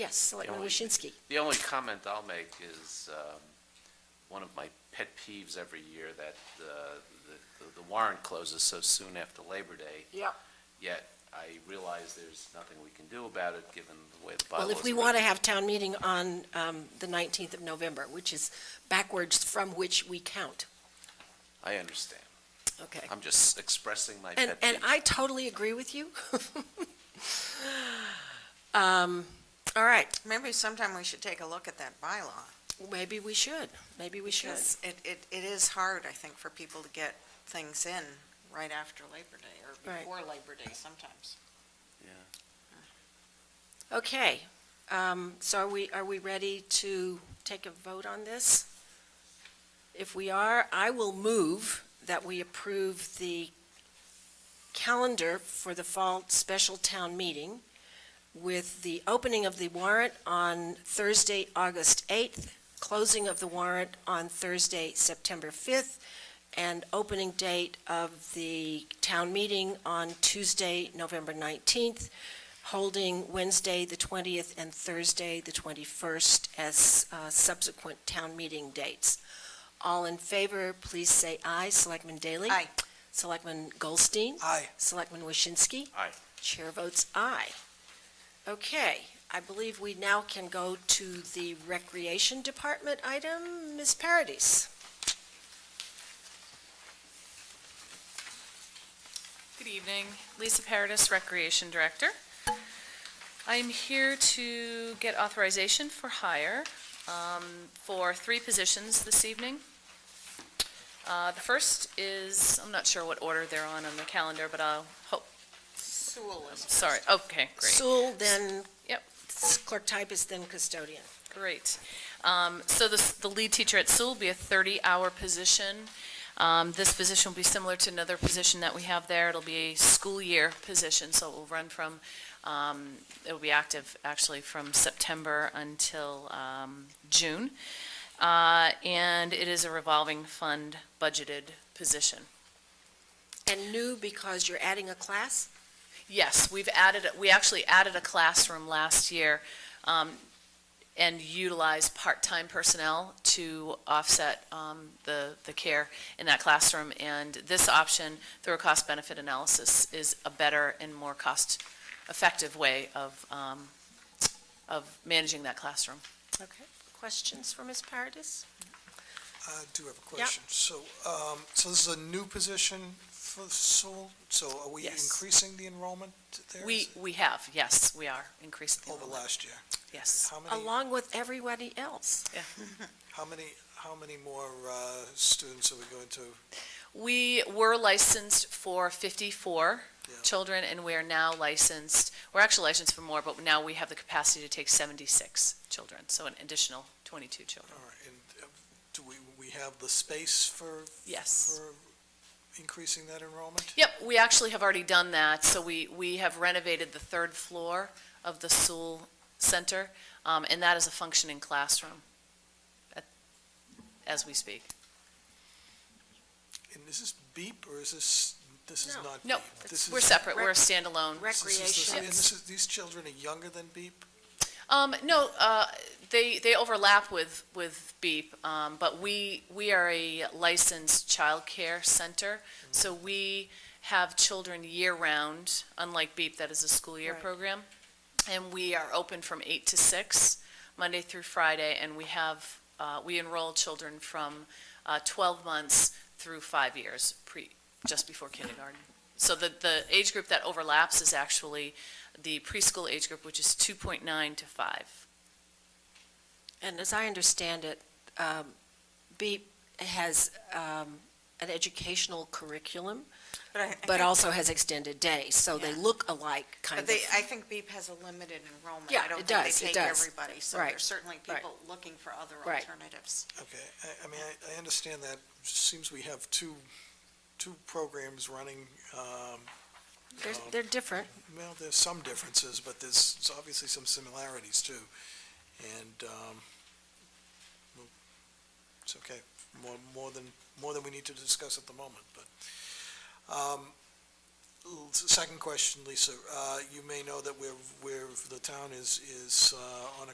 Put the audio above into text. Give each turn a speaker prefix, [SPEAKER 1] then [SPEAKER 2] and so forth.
[SPEAKER 1] Yes, Selectman
[SPEAKER 2] only-
[SPEAKER 1] Waschinsky.
[SPEAKER 2] The only comment I'll make is, um, one of my pet peeves every year that, uh, the, the warrant closes so soon after Labor Day,
[SPEAKER 1] Yep.
[SPEAKER 2] yet I realize there's nothing we can do about it, given the way the bylaws.
[SPEAKER 1] Well, if we
[SPEAKER 2] are
[SPEAKER 1] want to
[SPEAKER 2] written.
[SPEAKER 1] have town meeting on um, the 19th of November, which is backwards from which we count,
[SPEAKER 2] I understand.
[SPEAKER 1] okay?
[SPEAKER 2] I'm just expressing my
[SPEAKER 1] And,
[SPEAKER 2] pet
[SPEAKER 1] and
[SPEAKER 2] peeve.
[SPEAKER 1] I totally agree with you. Um, All right,
[SPEAKER 3] Maybe sometime we should take a look at that bylaw.
[SPEAKER 1] maybe we should, maybe we should.
[SPEAKER 3] Because it, it, it is hard, I think, for people to get things in right after Labor Day or
[SPEAKER 1] Right.
[SPEAKER 3] before Labor Day sometimes.
[SPEAKER 1] Okay, um, so are we, are we ready to take a vote on this? If we are, I will move that we approve the calendar for the fall special town meeting with the opening of the warrant on Thursday, August 8th, closing of the warrant on Thursday, September 5th, and opening date of the town meeting on Tuesday, November 19th, holding Wednesday, the 20th, and Thursday, the 21st, as uh, subsequent town meeting dates. All in favor, please say aye. Selectman Daley?
[SPEAKER 3] Aye.
[SPEAKER 1] Selectman Goldstein?
[SPEAKER 4] Aye.
[SPEAKER 1] Selectman Waschinsky?
[SPEAKER 2] Aye.
[SPEAKER 1] Chair votes aye. Okay, I believe we now can go to the Recreation Department item. Ms. Paradis?
[SPEAKER 5] Good evening, Lisa Paradis, Recreation Director. I'm here to get authorization for hire um, for three positions this evening. Uh, The first is, I'm not sure what order they're on on the calendar, but I'll, hope.
[SPEAKER 3] Sewell is.
[SPEAKER 5] sorry, okay, great.
[SPEAKER 1] Sewell, then
[SPEAKER 5] Yep.
[SPEAKER 1] clerk typist, then custodian.
[SPEAKER 5] Great. Um, So the, the lead teacher at Sewell will be a 30-hour position. Um, This position will be similar to another position that we have there. It'll be a school year position, so it will run from, um, it'll be active actually from September until um, June. Uh, And it is a revolving fund budgeted position.
[SPEAKER 1] And new because you're adding a class?
[SPEAKER 5] Yes, we've added, we actually added a classroom last year um, and utilized part-time personnel to offset um, the, the care in that classroom. And this option, through a cost-benefit analysis, is a better and more cost-effective way of, um, of managing that classroom.
[SPEAKER 1] Okay. Questions for Ms. Paradis?
[SPEAKER 4] I do have a question. So, um, so this is a new position for Sewell, so are we
[SPEAKER 5] Yes.
[SPEAKER 4] increasing the enrollment there?
[SPEAKER 5] We, we have, yes, we are increasing the
[SPEAKER 4] Over
[SPEAKER 5] enrollment.
[SPEAKER 4] last year?
[SPEAKER 5] Yes,
[SPEAKER 4] How many,
[SPEAKER 1] Along with everybody else.
[SPEAKER 5] yeah.
[SPEAKER 4] how many, how many more, uh, students are we going to?
[SPEAKER 5] We were licensed for 54
[SPEAKER 4] Yeah.
[SPEAKER 5] children, and we are now licensed, we're actually licensed for more, but now we have the capacity to take 76 children, so an additional 22 children.
[SPEAKER 4] All right, and uh, do we, we have the space for,
[SPEAKER 5] Yes.
[SPEAKER 4] for increasing that enrollment?
[SPEAKER 5] Yep, we actually have already done that, so we, we have renovated the third floor of the Sewell Center, um, and that is a functioning classroom at- as we speak.
[SPEAKER 4] And is this BEEP, or is this, this is
[SPEAKER 1] No.
[SPEAKER 4] not BEEP?
[SPEAKER 5] No,
[SPEAKER 4] This
[SPEAKER 5] we're
[SPEAKER 4] is-
[SPEAKER 5] separate, we're a standalone.
[SPEAKER 4] this is- this is-
[SPEAKER 1] Recreation.
[SPEAKER 4] And this is, these children are younger than BEEP?
[SPEAKER 5] Um, no, uh, they, they overlap with, with BEEP, um, but we, we are a licensed childcare center, so we have children year-round, unlike BEEP, that is a school year
[SPEAKER 1] Right.
[SPEAKER 5] program. And we are open from eight to six, Monday through Friday, and we have, uh, we enroll children from, uh, twelve months through five years, pre, just before kindergarten. So the, the age group that overlaps is actually the preschool age group, which is two point nine to five.
[SPEAKER 1] And as I understand it, um, BEEP has um, an educational curriculum,
[SPEAKER 3] But I- I
[SPEAKER 1] but
[SPEAKER 3] think-
[SPEAKER 1] also has extended days, so they
[SPEAKER 3] Yeah.
[SPEAKER 1] look alike, kind
[SPEAKER 3] But
[SPEAKER 1] of.
[SPEAKER 3] they, I think BEEP has a limited enrollment.
[SPEAKER 1] Yeah,
[SPEAKER 3] I don't
[SPEAKER 1] it
[SPEAKER 3] think they
[SPEAKER 1] does, it
[SPEAKER 3] take
[SPEAKER 1] does.
[SPEAKER 3] Everybody, so
[SPEAKER 1] Right,
[SPEAKER 3] there's certainly
[SPEAKER 1] right.
[SPEAKER 3] people looking for other
[SPEAKER 1] Right.
[SPEAKER 3] alternatives.
[SPEAKER 4] Okay, I, I mean, I, I understand that, seems we have two, two programs running, um,
[SPEAKER 1] They're, they're different.
[SPEAKER 4] well, there's some differences, but there's s- obviously some similarities too. And, um, well, it's okay, more, more than, more than we need to discuss at the moment, but, um, L- Second question, Lisa, uh, you may know that we're, we're, the town is, is, uh, on a